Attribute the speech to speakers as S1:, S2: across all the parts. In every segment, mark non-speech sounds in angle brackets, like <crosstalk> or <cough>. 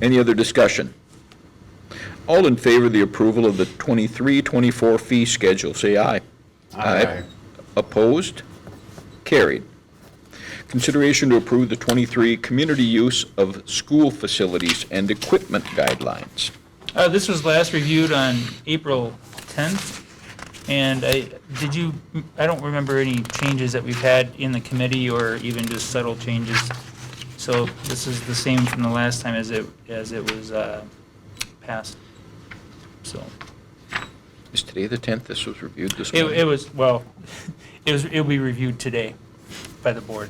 S1: Any other discussion? All in favor of the approval of the 23-24 fee schedule, say aye. Aye. Opposed? Carried. Consideration to approve the 23 community use of school facilities and equipment guidelines.
S2: Uh, This was last reviewed on April 10th, and I, did you, I don't remember any changes that we've had in the committee or even just subtle changes. So this is the same from the last time as it, as it was uh, passed. So,
S1: Is today the 10th? This was reviewed this
S2: it it
S1: morning.
S2: was, well, <laughs> it was, it'll be reviewed today by the board.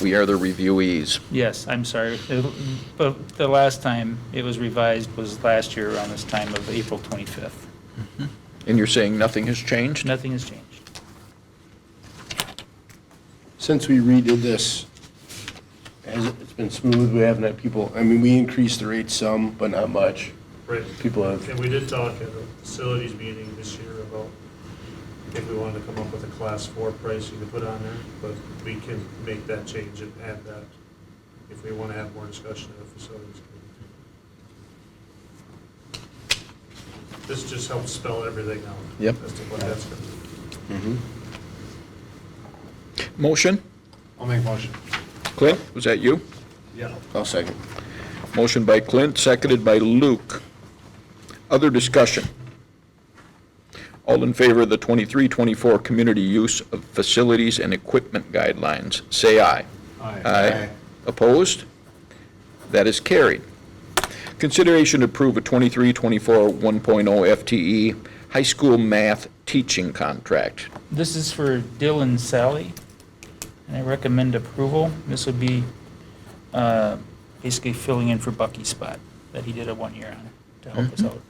S1: We are the reviewees.
S2: Yes, I'm sorry, It- but the last time it was revised was last year around this time of April 25th.
S1: And you're saying nothing has changed?
S2: Nothing has changed.
S3: Since we redid this, has it- it's been smooth? We haven't had people, I mean, we increased the rate some, but not much.
S4: Right,
S3: People have,
S4: and we did talk at the facilities meeting this year about if we wanted to come up with a class four price you could put on there, but we can make that change and add that if we want to have more discussion at the facilities. committee. This just helps spell everything out.
S1: Yep.
S4: As to what that's going to be.
S1: Motion?
S4: I'll make a motion.
S1: Clint, was that you?
S4: Yeah.
S3: I'll second.
S1: Motion by Clint, seconded by Luke. Other discussion? All in favor of the 23-24 community use of facilities and equipment guidelines, say aye. Aye. Opposed? That is carried. Consideration to approve a 23-24 1.0 FTE E high school math teaching contract.
S2: This is for Dylan Sally, and I recommend approval. This would be uh, basically filling in for Bucky's spot that he did a one year on to help us out.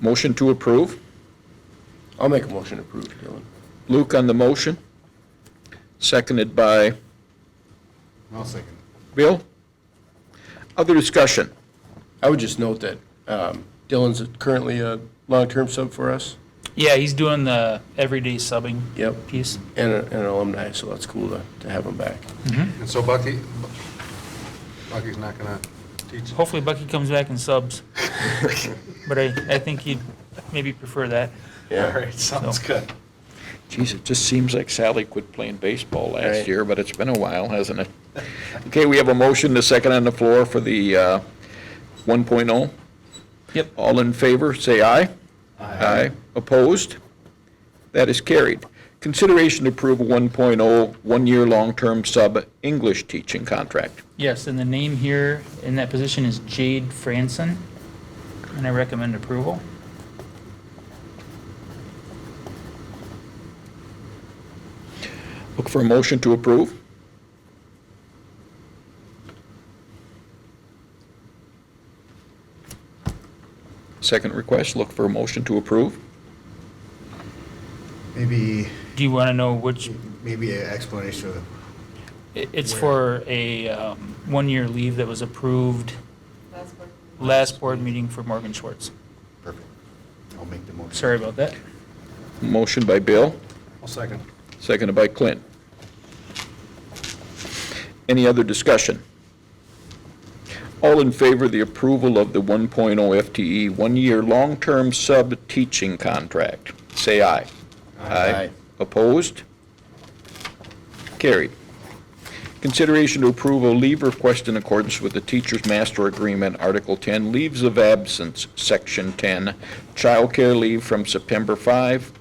S1: Motion to approve.
S3: I'll make a motion to approve, Dylan.
S1: Luke on the motion, seconded by
S5: I'll second.
S1: Bill. Other discussion?
S3: I would just note that um, Dylan's currently a long-term sub for us
S2: Yeah, he's doing the everyday subbing
S3: Yep.
S2: piece.
S3: and a- and an alumni, so that's cool to to have him back.
S5: And so Bucky, Bucky's not gonna teach.
S2: Hopefully, Bucky comes back and subs, but I, I think he'd maybe prefer that.
S5: All right, sounds good.
S1: Geez, it just seems like Sally quit playing baseball last
S3: Right.
S1: year, but it's been a while, hasn't it? Okay, we have a motion, a second on the floor for the uh, 1.0.
S2: Yep.
S1: All in favor, say aye. Aye. Opposed? That is carried. Consideration to approve a 1.0, one-year long-term sub-English teaching contract.
S2: Yes, and the name here in that position is Jade Franson, and I recommend approval.
S1: Look for a motion to approve. Second request, look for a motion to approve.
S5: Maybe,
S2: Do you want to know which
S5: maybe an explanation of
S2: It- It's for a um, one-year leave that was approved
S6: That's what.
S2: last board meeting for Morgan Schwartz.
S5: perfect. I'll make the motion.
S2: Sorry about that.
S1: Motion by Bill,
S5: I'll second.
S1: seconded by Clint. Any other discussion? All in favor of the approval of the 1.0 FTE, E, one-year long-term sub-teaching contract, say aye.
S3: Aye.
S1: Opposed? Carried. Consideration to approve a leave request in accordance with the Teacher's Master Agreement, Article 10, Leaves of Absence, Section 10, childcare leave from September 5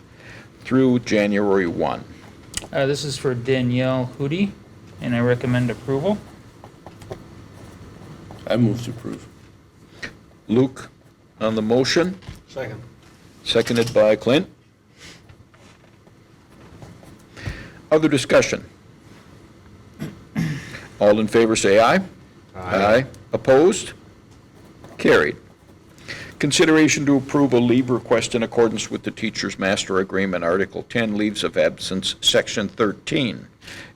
S1: through January 1.
S2: Uh, This is for Danielle Hootie, and I recommend approval.
S3: I move to approve.
S1: Luke on the motion,
S5: Second.
S1: seconded by Clint. Other discussion? All in favor, say aye. Aye. Opposed? Carried. Consideration to approve a leave request in accordance with the Teacher's Master Agreement, Article 10, Leaves of Absence, Section 13,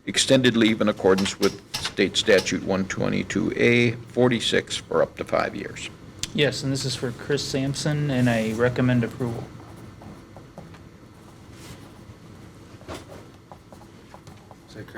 S1: extended leave in accordance with State Statute 122A 46 for up to five years.
S2: Yes, and this is for Chris Sampson, and I recommend approval.